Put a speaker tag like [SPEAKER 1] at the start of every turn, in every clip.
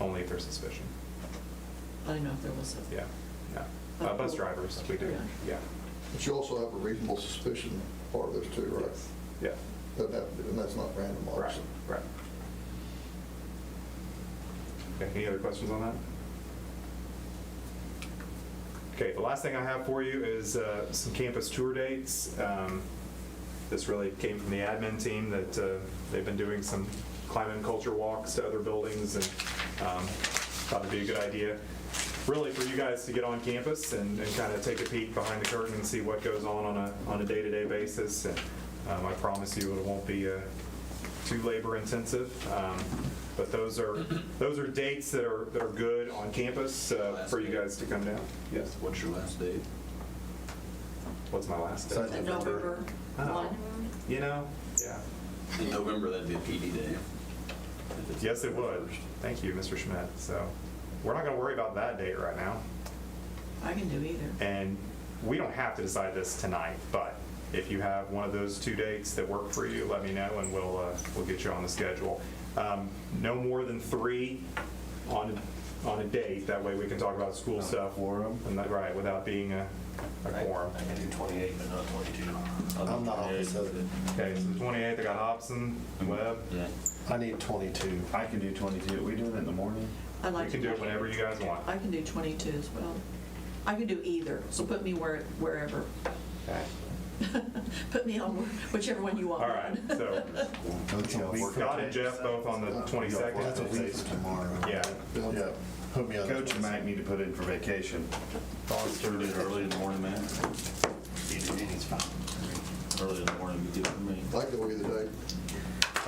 [SPEAKER 1] only for suspicion.
[SPEAKER 2] I didn't know if there was a.
[SPEAKER 1] Yeah, no. Uh, Bus drivers, we do, yeah,
[SPEAKER 3] But you also have a reasonable suspicion part of this too, right?
[SPEAKER 1] Yes. yeah,
[SPEAKER 3] That, that- and that's not random,
[SPEAKER 1] right,
[SPEAKER 3] obviously.
[SPEAKER 1] right. Okay, any other questions on that? Okay, the last thing I have for you is uh, some campus tour dates. Um, This really came from the admin team that uh, they've been doing some climate and culture walks to other buildings and um, thought it'd be a good idea, really for you guys to get on campus and kind of take a peek behind the curtain and see what goes on on a, on a day-to-day basis. And um, I promise you, it won't be uh, too labor-intensive. Um, But those are, those are dates that are, that are good on campus uh, for you guys to come down. Yes?
[SPEAKER 4] What's your last date?
[SPEAKER 1] What's my last
[SPEAKER 3] Second.
[SPEAKER 1] day?
[SPEAKER 2] That November
[SPEAKER 1] Oh.
[SPEAKER 2] one.
[SPEAKER 1] You know? Yeah.
[SPEAKER 4] In November, that'd be a PD day. If it's-
[SPEAKER 1] Yes, it would. Thank you, Mr. Schmidt. So we're not going to worry about that date right now.
[SPEAKER 2] I can do either.
[SPEAKER 1] And we don't have to decide this tonight, but if you have one of those two dates that work for you, let me know and we'll, uh, we'll get you on the schedule. Um, No more than three on, on a date. That way we can talk about school stuff.
[SPEAKER 5] quorum?
[SPEAKER 1] And that- Right, without being a a quorum.
[SPEAKER 5] I can do 28, but not 22.
[SPEAKER 3] I'm not on this
[SPEAKER 1] Okay, so the 28th, I got Hobson, Webb.
[SPEAKER 4] Yeah.
[SPEAKER 5] I need 22. I can do 22. Are we doing it in the morning?
[SPEAKER 2] I like.
[SPEAKER 1] You can do it whenever you guys want.
[SPEAKER 2] I can do 22 as well. I can do either, so put me where, wherever.
[SPEAKER 1] Okay.
[SPEAKER 2] Put me on whichever one you want.
[SPEAKER 1] All right, so
[SPEAKER 5] That's a week from
[SPEAKER 1] Scott and
[SPEAKER 5] today.
[SPEAKER 1] Jeff both on the 22nd.
[SPEAKER 5] That's a week from tomorrow.
[SPEAKER 1] Yeah,
[SPEAKER 5] Yeah.
[SPEAKER 3] Put me on.
[SPEAKER 5] Coach might need to put in for vacation.
[SPEAKER 4] Thoughts to it early in the morning, man? Early in the morning, would be good for me.
[SPEAKER 3] I can go either day.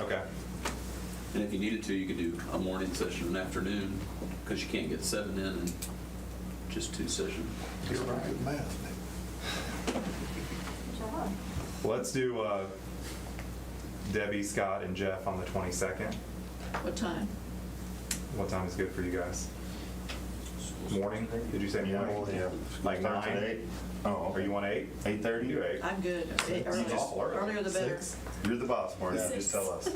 [SPEAKER 1] okay.
[SPEAKER 4] And if you needed to, you could do a morning session and afternoon, because you can't get seven in in just two sessions.
[SPEAKER 3] You're right. Good math, man.
[SPEAKER 1] Let's do uh, Debbie, Scott, and Jeff on the 22nd.
[SPEAKER 2] What time?
[SPEAKER 1] What time is good for you guys? Morning? Did you say morning? Like
[SPEAKER 5] Starts at
[SPEAKER 1] nine?
[SPEAKER 5] eight? Oh,
[SPEAKER 1] Or you want eight? You
[SPEAKER 5] 8:30?
[SPEAKER 1] do eight.
[SPEAKER 2] I'm good.
[SPEAKER 1] You just-
[SPEAKER 2] Earlier the better.
[SPEAKER 5] Six? You're the boss, Marty.
[SPEAKER 6] Six.
[SPEAKER 5] Just tell us.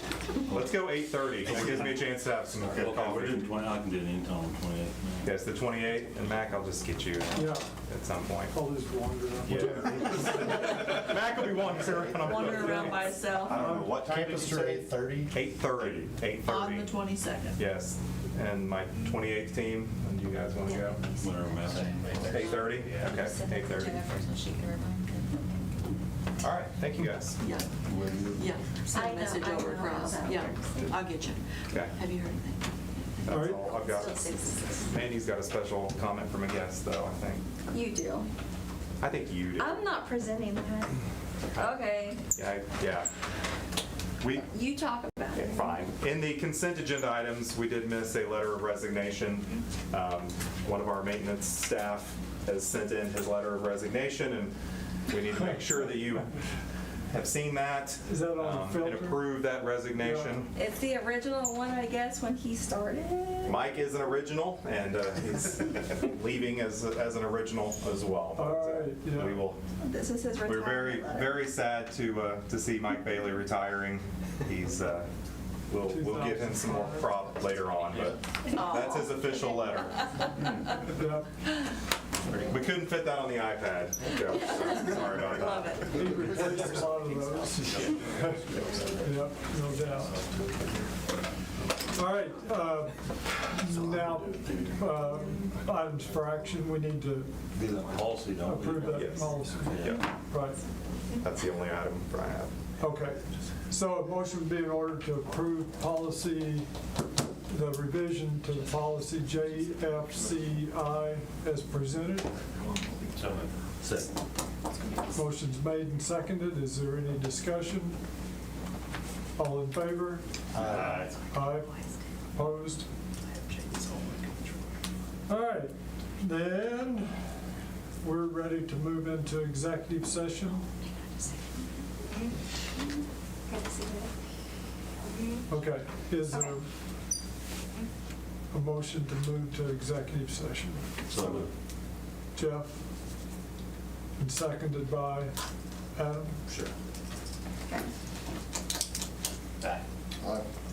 [SPEAKER 1] Let's go 8:30. That gives me a chance to have some
[SPEAKER 5] Okay,
[SPEAKER 4] we're
[SPEAKER 1] coffee.
[SPEAKER 4] doing twenty, I can do it anytime on twenty-eight.
[SPEAKER 1] Yes, the 28th, and Mac, I'll just get you
[SPEAKER 7] Yeah,
[SPEAKER 1] at some point.
[SPEAKER 7] I'll just wander.
[SPEAKER 1] Yeah. Oh, Mac will be wandering around.
[SPEAKER 2] Wander around by itself
[SPEAKER 5] I don't know, what time did you
[SPEAKER 7] Campus tour
[SPEAKER 5] say?
[SPEAKER 7] 8:30.
[SPEAKER 1] 8:30,
[SPEAKER 2] on the
[SPEAKER 1] 8:30.
[SPEAKER 2] 22nd.
[SPEAKER 1] Yes, and my 28th team, and do you guys want to go?
[SPEAKER 4] Whenever, man.
[SPEAKER 1] 8:30? Okay, 8:30. All right, thank you guys.
[SPEAKER 2] Yeah, yeah. Send
[SPEAKER 6] I
[SPEAKER 2] a
[SPEAKER 6] know,
[SPEAKER 2] message
[SPEAKER 6] I
[SPEAKER 2] over
[SPEAKER 6] know
[SPEAKER 2] across.
[SPEAKER 6] about
[SPEAKER 2] Yeah,
[SPEAKER 6] that.
[SPEAKER 2] I'll get you.
[SPEAKER 1] Okay.
[SPEAKER 2] Have you heard anything?
[SPEAKER 7] All
[SPEAKER 1] That's
[SPEAKER 7] right.
[SPEAKER 1] all I've got. Mandy's got a special comment from a guest, though, I think.
[SPEAKER 6] You do.
[SPEAKER 1] I think you do.
[SPEAKER 6] I'm not presenting that. Okay,
[SPEAKER 1] Yeah, I- yeah. We,
[SPEAKER 6] you talk about
[SPEAKER 1] okay,
[SPEAKER 6] it.
[SPEAKER 1] fine. In the consent agenda items, we did miss a letter of resignation. Um, One of our maintenance staff has sent in his letter of resignation, and we need to make sure that you have seen that.
[SPEAKER 7] Is that on the
[SPEAKER 1] um, And
[SPEAKER 7] filter?
[SPEAKER 1] approve that resignation.
[SPEAKER 6] It's the original one, I guess, when he started.
[SPEAKER 1] Mike is an original, and uh, he's leaving as, as an original as well. uh,
[SPEAKER 7] All right, yeah.
[SPEAKER 1] We will
[SPEAKER 6] This is his
[SPEAKER 1] We're
[SPEAKER 6] retirement
[SPEAKER 1] very,
[SPEAKER 6] letter.
[SPEAKER 1] very sad to, uh, to see Mike Bailey retiring. He's, uh, we'll, we'll give him some more prop later on, but that's his official letter.
[SPEAKER 7] Yeah,
[SPEAKER 1] We couldn't fit that on the iPad, Joe. Sorry- Sorry about that.
[SPEAKER 2] Oh, Love it.
[SPEAKER 7] he replaced a lot of those. Yep, no doubt. All right, uh, now, uh, items for action, we need to
[SPEAKER 4] Do that policy, don't we?
[SPEAKER 7] approve that
[SPEAKER 1] Yes.
[SPEAKER 7] policy.
[SPEAKER 1] Yeah,
[SPEAKER 7] Right,
[SPEAKER 1] that's the only item I have.
[SPEAKER 7] okay. So a motion would be in order to approve policy, the revision to policy JFCI as presented.
[SPEAKER 4] Second.
[SPEAKER 7] Motion's made and seconded. Is there any discussion? All in favor?
[SPEAKER 5] Aye.
[SPEAKER 7] Aye. Opposed? All right, then we're ready to move into executive session. Okay, is there a motion to move to executive session?
[SPEAKER 4] So moved.
[SPEAKER 7] Jeff? And seconded by Adam?
[SPEAKER 4] Sure.
[SPEAKER 6] Okay.
[SPEAKER 3] Aye.